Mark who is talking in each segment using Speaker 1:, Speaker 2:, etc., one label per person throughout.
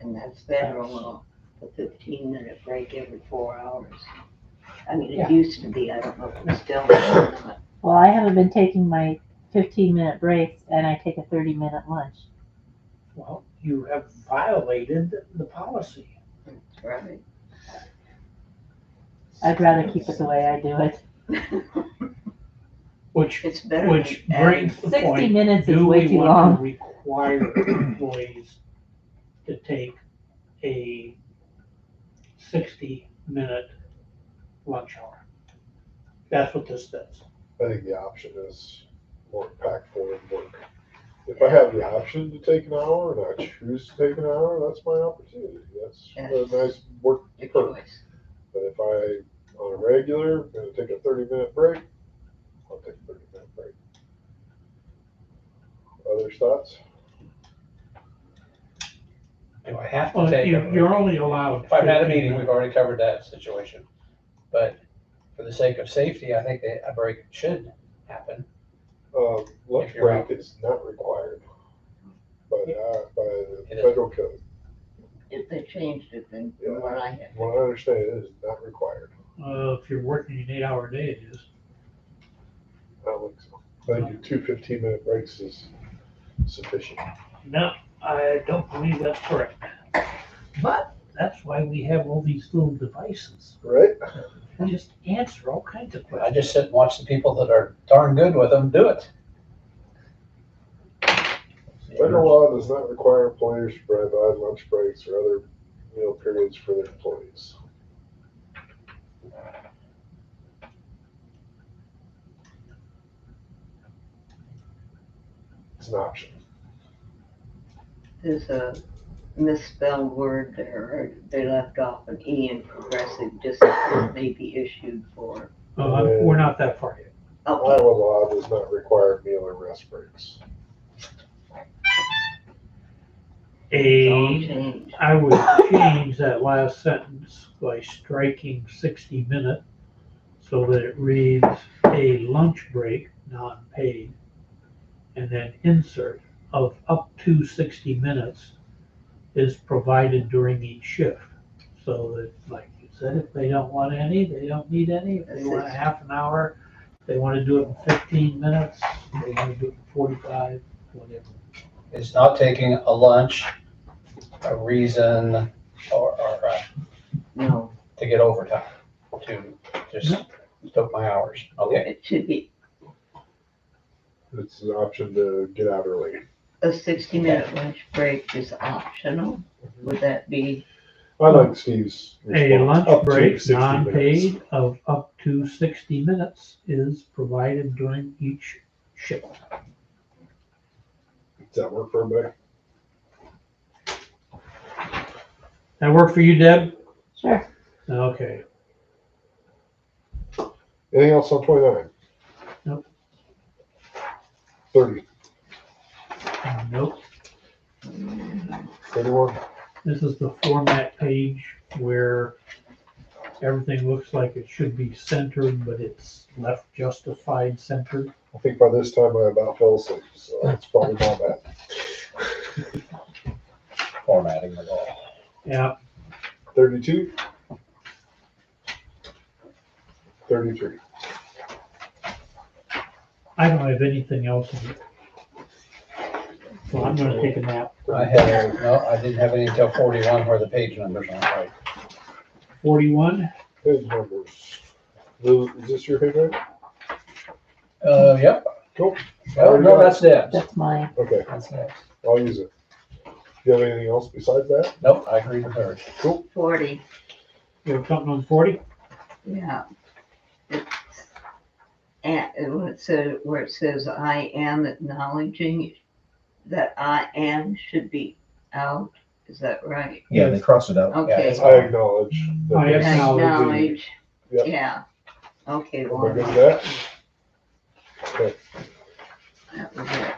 Speaker 1: and that's federal law, the fifteen minute break every four hours. I mean,
Speaker 2: Yeah.
Speaker 1: it used to be, I don't know if it's still, or not.
Speaker 3: Well, I haven't been taking my fifteen minute breaks and I take a thirty minute lunch.
Speaker 2: Well, you have violated the policy.
Speaker 1: right?
Speaker 3: I'd rather keep it the way I do it.
Speaker 2: Which,
Speaker 1: It's better than.
Speaker 2: which brings the
Speaker 3: Sixty
Speaker 2: point,
Speaker 3: minutes is
Speaker 2: do
Speaker 3: way
Speaker 2: we
Speaker 3: too
Speaker 2: want
Speaker 3: long.
Speaker 2: to require employees to take a sixty-minute lunch hour? That's what this does.
Speaker 4: I think the option is more impactful than work. If I have the option to take an hour and I choose to take an hour, that's my opportunity. That's a
Speaker 1: Yes.
Speaker 4: nice work
Speaker 1: adding the
Speaker 4: perk.
Speaker 1: choice.
Speaker 4: But if I, on a regular, gonna take a thirty minute break, I'll take a thirty minute break. Other thoughts?
Speaker 5: Do I have to
Speaker 2: Well,
Speaker 5: take
Speaker 2: you-
Speaker 5: a,
Speaker 2: You're only allowed.
Speaker 5: if I'm at a
Speaker 2: 15
Speaker 5: meeting, we've already covered that situation. But for the sake of safety, I think that a break should happen.
Speaker 4: Um, lunch
Speaker 5: If you're
Speaker 4: break is not required by, the- by the
Speaker 5: It is.
Speaker 4: federal code.
Speaker 1: If they changed it, then from what I have,
Speaker 4: What I understand, it is not required.
Speaker 2: Uh, if you're working an eight-hour day, it is.
Speaker 4: I don't think so. I think two fifteen minute breaks is sufficient.
Speaker 2: No, I don't believe that's correct. But that's why we have all these little devices.
Speaker 4: Right?
Speaker 2: Just answer all kinds of
Speaker 5: I
Speaker 2: questions.
Speaker 5: just sit and watch the people that are darn good with them do it.
Speaker 4: Federal law does not require employers to provide lunch breaks or other meal periods for their employees. It's an option.
Speaker 1: there's a misspelled word there, or they left off an E in progressive discipline may be issued for.
Speaker 2: No, I'm- Uh, We're not that far yet.
Speaker 1: Okay,
Speaker 4: Iowa law does not require meal or rest breaks.
Speaker 2: E.
Speaker 1: it's all
Speaker 2: A,
Speaker 1: changed.
Speaker 2: I would change that last sentence by striking sixty minute so that it reads a lunch break, non-paid, and then insert of up to sixty minutes is provided during each shift. So that, like you said, if they don't want any, they don't need any. If they want a half an hour, they want to do it in fifteen minutes, they want to do it in forty-five, whatever.
Speaker 5: It's not taking a lunch, a reason, or, or, uh,
Speaker 1: No,
Speaker 5: to get overtime, to just took my hours. Okay,
Speaker 1: it should be
Speaker 4: It's an option to get out early.
Speaker 1: a sixty minute lunch break is optional. Would that be
Speaker 4: I like Steve's response.
Speaker 2: A lunch
Speaker 4: Up to
Speaker 2: break,
Speaker 4: 60 minutes.
Speaker 2: non-paid, of up to sixty minutes is provided during each shift.
Speaker 4: Does that work for everybody?
Speaker 2: That work for you, Deb?
Speaker 3: Sure.
Speaker 2: Okay,
Speaker 4: Anything else on twenty-nine?
Speaker 2: Nope.
Speaker 4: Thirty,
Speaker 2: Uh, nope,
Speaker 4: thirty-one?
Speaker 2: this is the format page where everything looks like it should be centered, but it's left justified centered.
Speaker 4: I think by this time I about fell asleep, so that's probably my bad.
Speaker 5: formatting the law.
Speaker 2: Yeah,
Speaker 4: Thirty-two? Thirty-three.
Speaker 2: I don't have anything else in it. So I'm gonna take a nap.
Speaker 5: I had, no, I didn't have any until forty-one where the page numbers aren't right.
Speaker 2: Forty-one,
Speaker 4: Page numbers. Those- Is this your favorite?
Speaker 5: Uh, yep.
Speaker 4: Cool.
Speaker 5: Oh, no, that's Deb's.
Speaker 3: That's mine.
Speaker 4: Okay,
Speaker 5: That's Deb's.
Speaker 4: I'll use it. Do you have anything else besides that?
Speaker 5: Nope, I agree with her.
Speaker 4: Cool.
Speaker 1: forty?
Speaker 2: you have something on forty?
Speaker 1: Yeah. It's And and when it says, where it says, I am acknowledging that I am should be out, is that right?
Speaker 6: Yeah, they cross it out.
Speaker 1: Okay.
Speaker 5: Yeah, it's
Speaker 4: I
Speaker 5: fine.
Speaker 4: acknowledge. that
Speaker 2: I
Speaker 4: this-
Speaker 2: Acknowledge.
Speaker 1: Acknowledge,
Speaker 4: Yep.
Speaker 1: yeah. Okay,
Speaker 4: Am I
Speaker 1: one,
Speaker 4: good with that? Okay,
Speaker 1: that was it.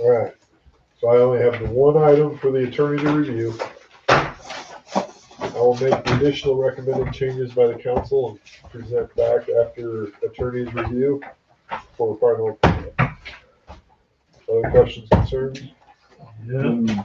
Speaker 4: all right. So I only have the one item for the attorney to review. I will make the additional recommended changes by the council and present back after attorney's review for final. approval. Other questions, concerns?
Speaker 2: Yeah.